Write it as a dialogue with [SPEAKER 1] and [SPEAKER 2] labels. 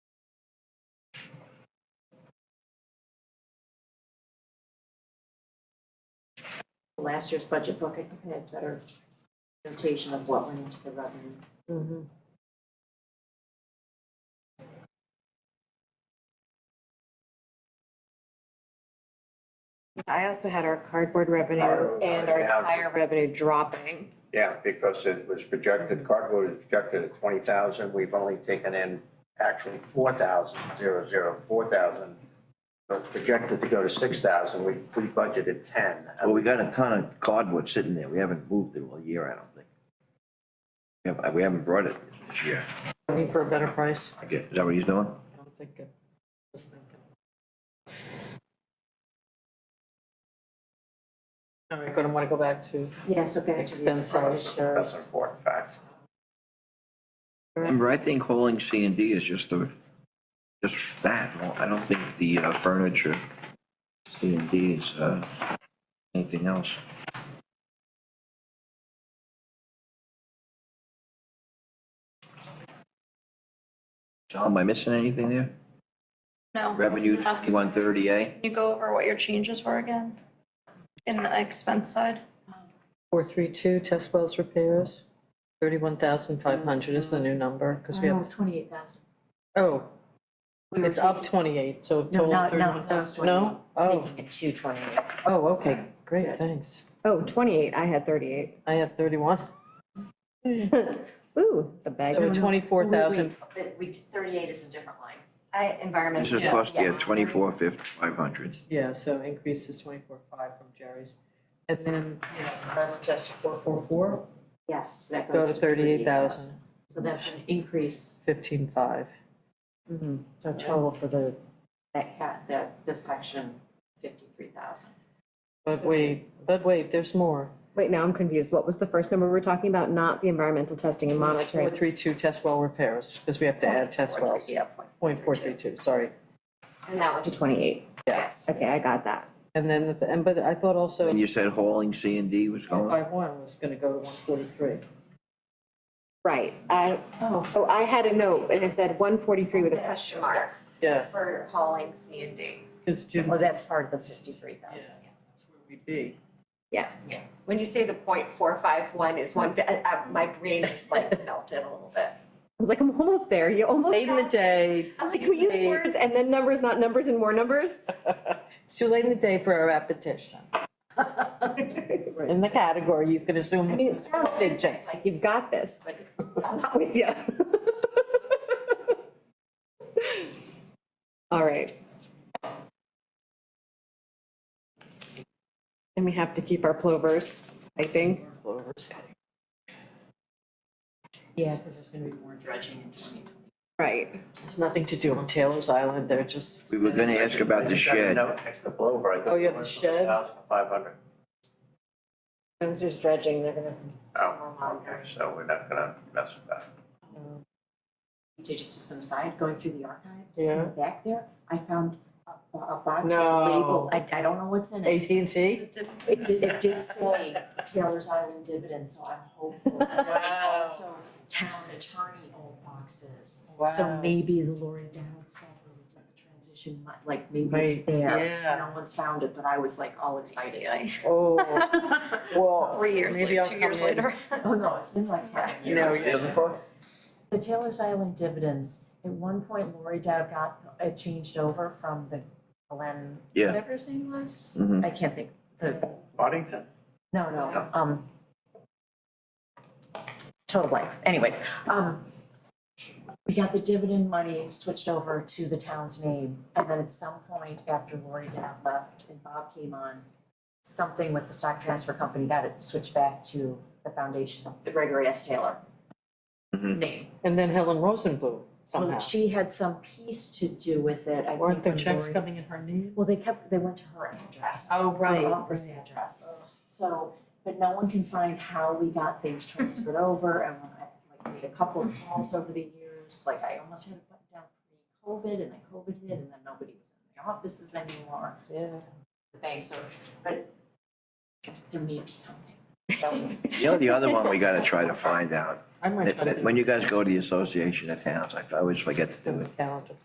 [SPEAKER 1] last year's budget book, I think I had a better notation of what went into the revenue. Mm-hmm.
[SPEAKER 2] I also had our cardboard revenue
[SPEAKER 3] Cardboard,
[SPEAKER 2] and our
[SPEAKER 3] yeah.
[SPEAKER 2] tire revenue dropping.
[SPEAKER 3] Yeah, because it was projected, cardboard was projected at twenty thousand, we've only taken in actually four thousand, zero, zero, four thousand. But it's projected to go to six thousand, we, we budgeted ten.
[SPEAKER 4] Well, we got a ton of cardwood sitting there, we haven't moved it all year, I don't think. We haven't, we haven't brought it this year,
[SPEAKER 5] Looking for a better price,
[SPEAKER 4] I guess, is that what he's doing?
[SPEAKER 5] I'm thinking, just thinking. All right, gonna wanna go back to
[SPEAKER 1] Yeah, so back to the
[SPEAKER 5] expense
[SPEAKER 1] expense.
[SPEAKER 5] expenditures.
[SPEAKER 3] That's an important fact.
[SPEAKER 4] Remember, I think holding C and D is just the, just that, Well, I don't think the uh, furniture, C and D is, uh, anything else. John, am I missing anything there?
[SPEAKER 6] No.
[SPEAKER 4] Revenue
[SPEAKER 6] Ask, can
[SPEAKER 4] one thirty eh? A,
[SPEAKER 6] you go over what your changes were again? In the expense side?
[SPEAKER 5] Four three two, test wells repairs, thirty-one thousand five hundred is the new number, because we have,
[SPEAKER 1] twenty-eight thousand.
[SPEAKER 5] oh, it's up twenty-eight, so
[SPEAKER 1] No,
[SPEAKER 5] total
[SPEAKER 1] not,
[SPEAKER 5] thirty-one
[SPEAKER 1] not
[SPEAKER 5] thousand.
[SPEAKER 1] those twenty-eight.
[SPEAKER 5] Oh,
[SPEAKER 1] Taking it to twenty-eight.
[SPEAKER 5] oh, okay,
[SPEAKER 1] Good.
[SPEAKER 5] great, thanks.
[SPEAKER 2] Oh, twenty-eight, I had thirty-eight.
[SPEAKER 5] I had thirty-one,
[SPEAKER 2] Ooh, it's a bag.
[SPEAKER 5] so twenty-four thousand,
[SPEAKER 1] But we, thirty-eight is a different line.
[SPEAKER 2] I, environmental.
[SPEAKER 4] this is
[SPEAKER 5] Yeah.
[SPEAKER 4] plus, yeah,
[SPEAKER 1] Yes.
[SPEAKER 4] twenty-four fifty, five hundred.
[SPEAKER 5] yeah, so increase is twenty-four five from Jerry's. And then, yeah, that's just four four four,
[SPEAKER 1] Yes, that
[SPEAKER 5] go
[SPEAKER 1] goes
[SPEAKER 5] to thirty-eight thousand,
[SPEAKER 1] So that's an increase,
[SPEAKER 5] fifteen five.
[SPEAKER 2] Mm-hmm.
[SPEAKER 5] So total for the,
[SPEAKER 1] that cat, that, this section, fifty-three thousand.
[SPEAKER 5] but wait, but wait, there's more.
[SPEAKER 2] Wait, now I'm confused. What was the first number we were talking about? Not the environmental testing and monitoring?
[SPEAKER 5] Four three two test well repairs, because we have to add test wells.
[SPEAKER 1] Yeah.
[SPEAKER 5] Point four three two, sorry,
[SPEAKER 1] And that one,
[SPEAKER 2] To twenty-eight.
[SPEAKER 1] yes.
[SPEAKER 2] Okay, I got that.
[SPEAKER 5] and then, at the- and but I thought also
[SPEAKER 4] And you said hauling C and D was going?
[SPEAKER 5] five one was gonna go to one forty-three.
[SPEAKER 2] Right, I,
[SPEAKER 1] Oh,
[SPEAKER 2] so I had a note and it said one forty-three with a question mark.
[SPEAKER 5] Yeah,
[SPEAKER 1] for hauling C and D.
[SPEAKER 5] because Jim,
[SPEAKER 1] Well,
[SPEAKER 5] that's
[SPEAKER 1] Oh, that's part of the fifty-three thousand, yeah.
[SPEAKER 5] where we'd be.
[SPEAKER 7] Yes.
[SPEAKER 1] Yeah.
[SPEAKER 7] When you say the point four five one is one, fi- I- I- my brain just like melted a little bit.
[SPEAKER 2] I was like, I'm almost there. You almost.
[SPEAKER 5] Late in the day,
[SPEAKER 2] I'm like, we use words and then numbers, not numbers and more numbers?
[SPEAKER 5] it's too late in the day for a repetition. We're in the category, you can assume
[SPEAKER 2] mean, it sounds-
[SPEAKER 5] digits.
[SPEAKER 2] Like, you've got this. I'm not with you. All right. And we have to keep our plovers, I think.
[SPEAKER 1] Yeah, because there's gonna be more dredging in twenty twenty.
[SPEAKER 2] Right.
[SPEAKER 5] It's nothing to do on Taylor's Island, they're just.
[SPEAKER 4] We were gonna ask about the
[SPEAKER 3] I just got a
[SPEAKER 4] shed.
[SPEAKER 3] note next to Blover, I think
[SPEAKER 5] Oh, you
[SPEAKER 3] it
[SPEAKER 5] have
[SPEAKER 3] was
[SPEAKER 5] the shed?
[SPEAKER 3] 1,500.
[SPEAKER 1] Spencer's dredging, they're gonna.
[SPEAKER 3] Oh, okay, so we're not gonna mess with that.
[SPEAKER 1] Just as an aside, going through the archives, in
[SPEAKER 5] Yeah.
[SPEAKER 1] the back there, I found a, a box
[SPEAKER 5] No.
[SPEAKER 1] labeled, I, I don't know what's in it.
[SPEAKER 5] AT&T?
[SPEAKER 1] It did, it did say Taylor's Island dividend, so I'm hopeful.
[SPEAKER 5] Wow.
[SPEAKER 1] There's also town attorney old boxes. So
[SPEAKER 5] Wow.
[SPEAKER 1] maybe the Lori Dowd stuff or the transition, mi- like maybe it's
[SPEAKER 5] Right,
[SPEAKER 1] there.
[SPEAKER 5] yeah.
[SPEAKER 1] No one's found it, but I was like all excited.
[SPEAKER 5] Oh, well.
[SPEAKER 6] Three years,
[SPEAKER 5] maybe
[SPEAKER 6] like
[SPEAKER 5] I'll
[SPEAKER 6] two years
[SPEAKER 5] come in.
[SPEAKER 6] later.
[SPEAKER 1] Oh, no, it's been like seven
[SPEAKER 5] No,
[SPEAKER 1] years.
[SPEAKER 5] yeah.
[SPEAKER 1] The Taylor's Island dividends, at one point Lori Dowd got, it changed over from the Glenn,
[SPEAKER 4] Yeah.
[SPEAKER 1] whatever his name was?
[SPEAKER 4] Mhm.
[SPEAKER 1] I can't think, the
[SPEAKER 3] Boddington?
[SPEAKER 1] No, no, um. Total blank, anyways, um. We got the dividend money switched over to the town's name, and then at some point after Lori Dowd left and Bob came on. Something with the stock transfer company got it switched back to the foundation, the Gregory S. Taylor.
[SPEAKER 4] Mhm.
[SPEAKER 1] Name,
[SPEAKER 5] And then Helen Rosenblum somehow.
[SPEAKER 1] Well, she had some piece to do with it, I think.
[SPEAKER 5] Weren't there
[SPEAKER 1] when
[SPEAKER 5] checks
[SPEAKER 1] Lori-
[SPEAKER 5] coming in her name?
[SPEAKER 1] Well, they kept, they went to her address.
[SPEAKER 5] Oh, right, Oh.
[SPEAKER 1] Her office address. So, but no one can find how we got things transferred over and when I like made a couple of calls over the years, like I almost had it button down pre-COVID and then COVID hit and then nobody was in the offices anymore,
[SPEAKER 5] Yeah.
[SPEAKER 1] the bank, so, but there may be something, so.
[SPEAKER 4] You know, the other one we gotta try to find out,
[SPEAKER 5] I might try to.
[SPEAKER 4] when you guys go to the Association of Towns, I always forget to do it.
[SPEAKER 5] Calendar.